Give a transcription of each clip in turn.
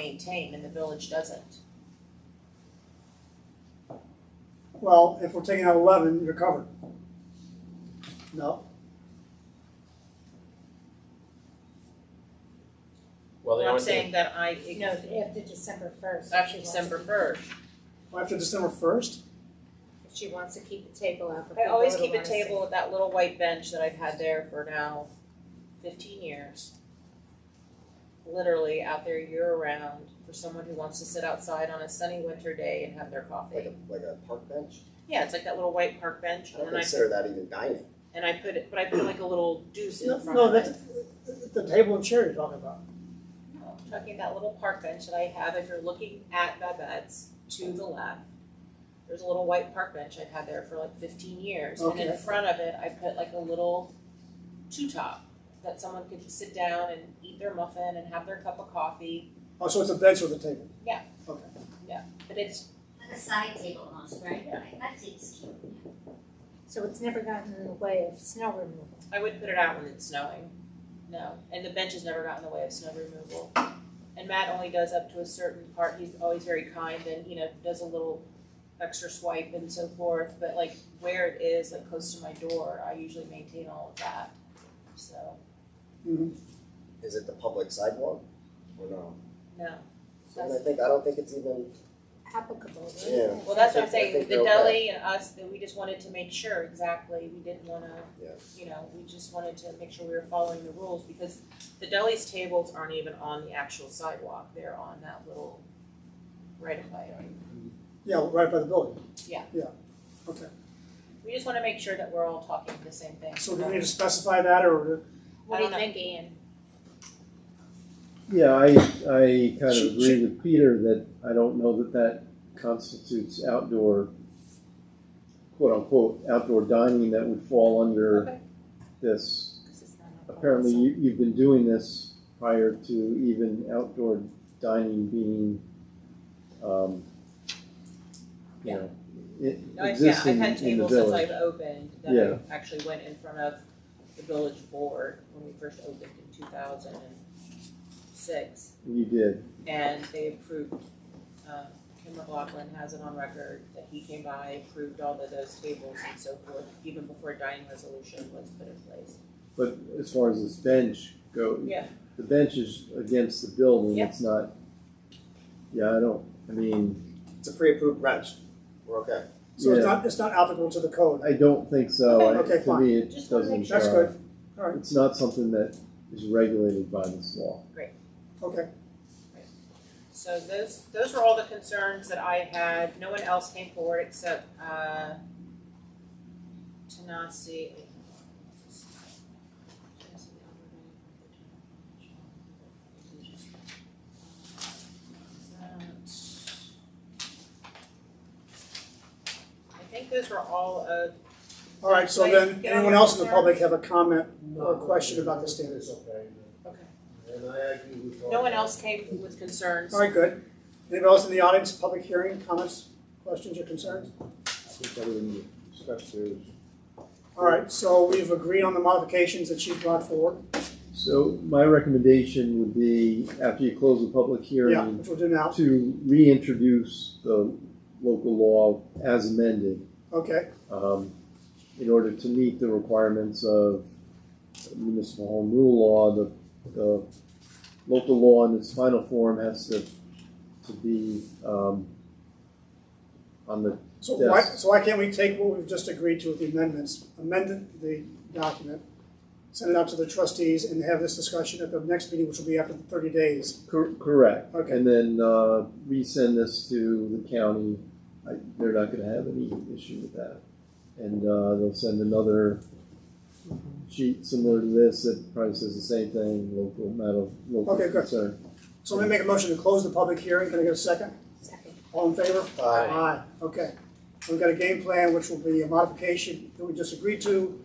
maintain and the village doesn't. Well, if we're taking out eleven, you're covered. No, Well, the I'm only saying thing, that I, No, after December first. after December first, after December first, If she wants to keep a table out for people I to always keep a wanna sit. table with that little white bench that I've had there for now fifteen years. Literally out there year round for someone who wants to sit outside on a sunny winter day and have their Like coffee. a, like a park bench? Yeah, it's like that little white park bench I and don't then I, consider that even dining. and I put it, but I put like a little deuce in no, front of it. no, that's, the table and chair you're talking about. No, I'm talking that little park bench that I have, if you're looking at Babette's to the left, there's a little white park bench I've had there for like fifteen years, and in Okay. front of it, I put like a little two-top that someone could sit down and eat their muffin and have their cup of coffee, Oh, so it's a bench with a table. but it's, Like a side table almost, right? Yeah. Like, That seems cute. So it's never gotten in the way of snow removal. I would put it out when it's snowing, no, and the bench has never gotten in the way of snow removal. And Matt only does up to a certain part, he's always very kind and, you know, does a little extra swipe and so forth, but like where it is, like close to my door, I usually maintain all of that, so, Mm-hmm. Is it the public sidewalk or no? no. And I think, I don't think it's even, Applicable, right? Yeah. Well, that's what I I'm think- I saying, think the they're okay. deli and us, that we just wanted to make sure exactly, we didn't wanna, Yeah. you know, we just wanted to make sure we were following the rules, because the deli's tables aren't even on the actual sidewalk, they're on that little right of way. Yeah, right by the building. Yeah. Yeah, okay. We just wanna make sure that we're all talking the same thing. So do we need to specify that or What do I you don't think, Ian? Yeah, I, I kind of agree with Peter that I don't know that that constitutes outdoor, quote-unquote, outdoor dining that would fall under Okay. this. 'Cause it's not a- Apparently, you, you've been doing this prior to even outdoor dining being, um, you know, it No, I've, yeah, I've existing had in the tables since village. I've opened, Yeah. that I actually went in front of the village board when we first opened in two thousand and six. You did, and they approved, um, Kim McLaughlin has it on record that he came by, approved all of those tables and so forth, even before dining resolution was put in place. but as far as this bench go, Yeah. the bench is against the building, Yeah. it's not, yeah, I don't, I mean, it's a pre-approved bench. We're okay. so Yeah. it's not, it's not applicable to the code? I don't think so. Okay. I- Okay, To fine. me, it Just wanna doesn't. make That's uh, good, all right, It's not something that is regulated by this law. okay. So those, those were all the concerns that I had, no one else came forward except, uh, Tanasi. I think those were all of All right, so Wait, then, can I anyone have else in the a public have a comment? No, or question about the standards? It's okay. Okay. And I agree with. all No one that. else came with concerns. All right, good. Anybody else in the audience, public hearing, comments, questions or concerns? I think everything you discussed there is All right, so we've agreed on the modifications that she brought forward, So my recommendation would be, after you close the public yeah, hearing, which we'll do now, to reintroduce the local law as amended okay, um, in order to meet the requirements of municipal home rule law. The, the local law in its final form has to, to be um, on the so why, Yes. so why can't we take what we've just agreed to with the amendments, amend the document, send it out to the trustees and have this discussion at the next meeting, which will be after the thirty days, Cor- Correct. Okay. And then uh, resend this to the county. I, they're not going to have any issue with that. And uh, they'll send another sheet similar to this that probably says the same thing, local, matter, local Okay, good. concern. So let me make a motion to close the public hearing, can I get a second? Second. All in favor? Aye. Aye, okay. We've got a game plan, which will be a modification that we just agreed to,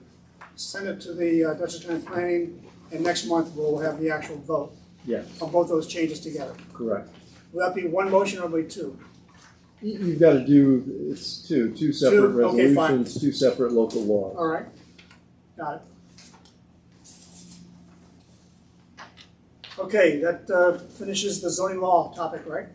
send it to the uh, Dutchess County Planning, and next month we'll have the actual vote Yes, on both those changes together. correct. Will that be one motion or will it be two? You, you've got to do, it's two, two separate Two? Okay, fine. resolutions, two separate local laws. All right, got it. Okay, that uh, finishes the zoning law topic, right?